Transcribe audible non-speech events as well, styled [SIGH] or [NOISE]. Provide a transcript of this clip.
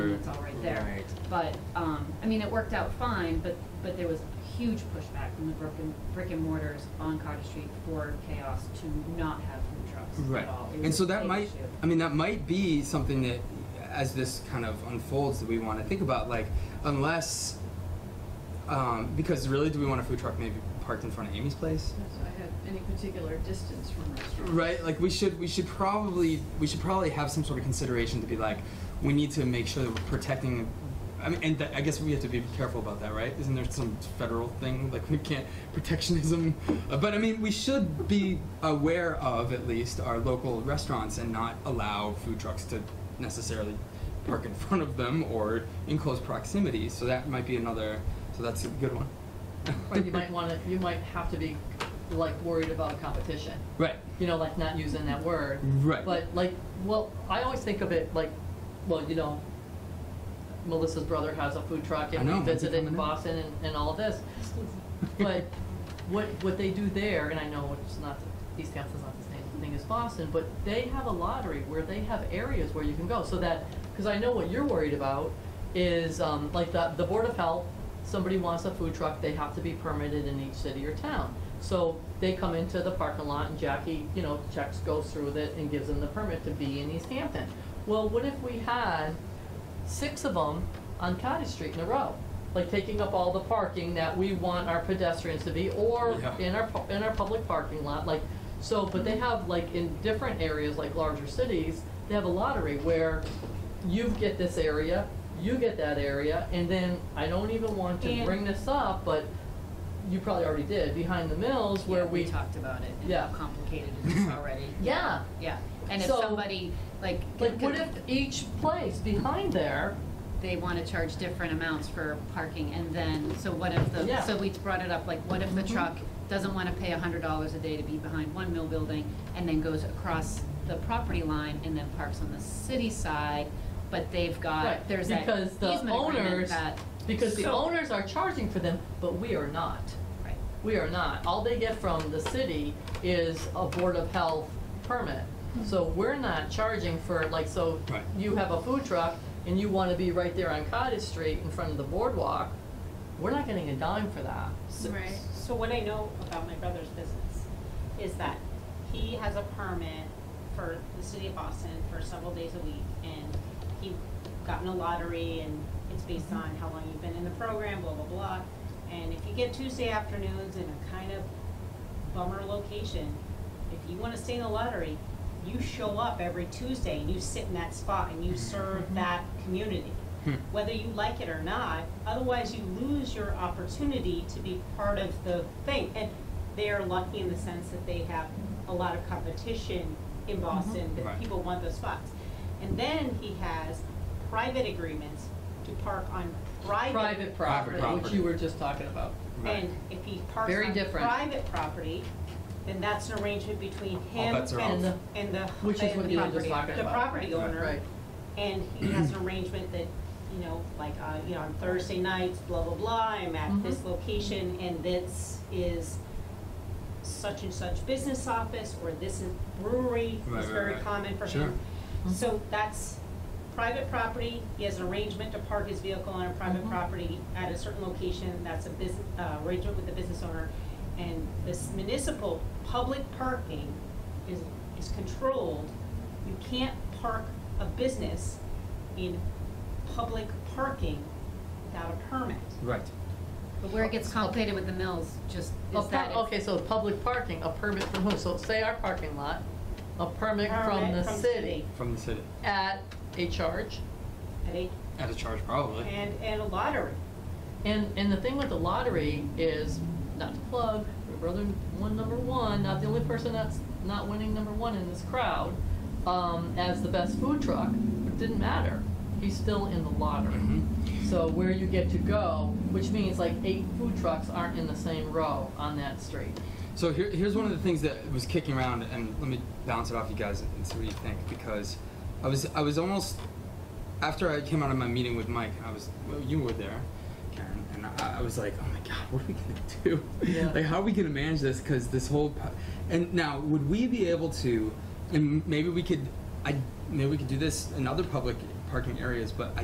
it's all right there. Right. But, um, I mean, it worked out fine, but, but there was huge pushback from the brick and, brick and mortars on Cottage Street for chaos to not have food trucks Right. at all. It And was so a that big might, issue. I mean, that might be something that, as this kind of unfolds, that we want to think about. Like, unless, um, because really, do we want a food truck maybe parked in front of Amy's place? That's why I had any particular distance from restaurants. Right. Like, we should we should probably we should probably have some sort of consideration to be like, we need to make sure that we're protecting. I mean, and that, I guess we have to be careful about that, right? Isn't there some federal thing like we can't protectionism? Uh, But I mean, we should be aware of at least our local restaurants and not allow food trucks to necessarily park in [LAUGHS] front of them or in close proximity. So that might be another. So that's a good one. Or you might wanna, you might have to be like worried about competition, Right. you know, like not using that word. Right. But like, well, I always think of it like, well, you know, Melissa's brother has a food truck I and know, we when's he visited in coming in? Boston and, and all this. But what, what they do there, and I know it's not, East Hampton's not the same thing as Boston, but they have a lottery where they have areas where you can go, so that, because I know what you're worried about is, um, like the, the Board of Health, somebody wants a food truck, they have to be permitted in each city or town. So they come into the parking lot and Jackie, you know, checks, goes through with it and gives them the permit to be in East Hampton. Well, what if we had six of them on Cottage Street in a row, like taking up all the parking that we want our pedestrians to be, or Yeah. in our, pu- in our public parking lot, like, so, but they have, like, in different areas, like larger cities, they have a lottery where you get this area, you get that area, and then, I don't even want to And- bring this up, but you probably already did, behind the mills where Yeah, we. talked about it and Yeah. how complicated it [LAUGHS] is already. Yeah, Yeah, and if So- somebody, like. like, could- what if each place behind there they want to charge different amounts for parking, and then, so what if the, Yeah. Mm-hmm. so we brought it up, like, what if the truck doesn't want to pay a hundred dollars a day to be behind one mill building, and then goes across the property line and then parks on the city side, but they've got, Right, there's that because the easement agreement owners- that, Because the So- owners are charging for them, but we are not. right, We are not. All they get from the city is a Board of Health permit. So we're not charging for, like, so Right. you have a food truck and you want to be right there on Cottage Street in front of the boardwalk, we're not getting a dime for that. Right. So what I know about my brother's business is that he has a permit for the city of Boston for several days a week, and he got in a lottery, and it's based on how long you've been in the program, blah, blah, blah. And if you get Tuesday afternoons in a kind of bummer location, if you wanna stay in the lottery, you show up every Tuesday and you sit in that spot and you serve that community Hmm. whether you like it or not. Otherwise, you lose your opportunity to be part of the thing. And they are lucky in the sense that they have a lot of competition in Mm-hmm. Boston, Right. that people want those spots. And then he has private agreements to park on Private property, which property. you were just talking about. Right. and if he parks Very on different. private proproperty, then that's an arrangement between him bets are and, off. and the, Which is and what the you were just property, talking the about. property Right. owner. Right. And [CLEARS THROAT] he has an arrangement that, you know, like, uh, you know, on Thursday nights, blah, blah, blah, I'm at this Mm-hmm. Mhm. location and this is such and such business office, or this is brewery, Right, is right, very right. common for Sure. him. So that's private property, he has an arrangement to park his vehicle on a private Mhm. Mm-hmm. property at a certain location, that's a business, uh, arrangement with the business owner. And this municipal public parking is, is controlled, you can't park a business in public parking without a permit. Right. but where it gets complicated with the mills, just A is per- that. if- Okay, so public parking, a permit from who? So say our parking lot, a permit from Permit the from city From the city. at a charge. At a- At a charge, probably. And, and a lottery. And, and the thing with the lottery is, not to plug, my brother won number one, not the only person that's not winning number one in this crowd, um, as the best food truck, it didn't matter. He's still in the lottery. Mhm. So where you get to go, which means like eight food trucks aren't in the same row on that street. So here, here's one of the things that was kicking around, and let me bounce it off you guys and see what you think. Because I was, I was almost after I came out of my meeting with Mike. I was, well, you were there, Karen, and I, I was like, oh my god, [LAUGHS] what are we gonna do? Yeah. like, how are we gonna manage this? Because this whole, po- and now would we be able to? And maybe we could, I maybe we could do this in other public parking areas, but I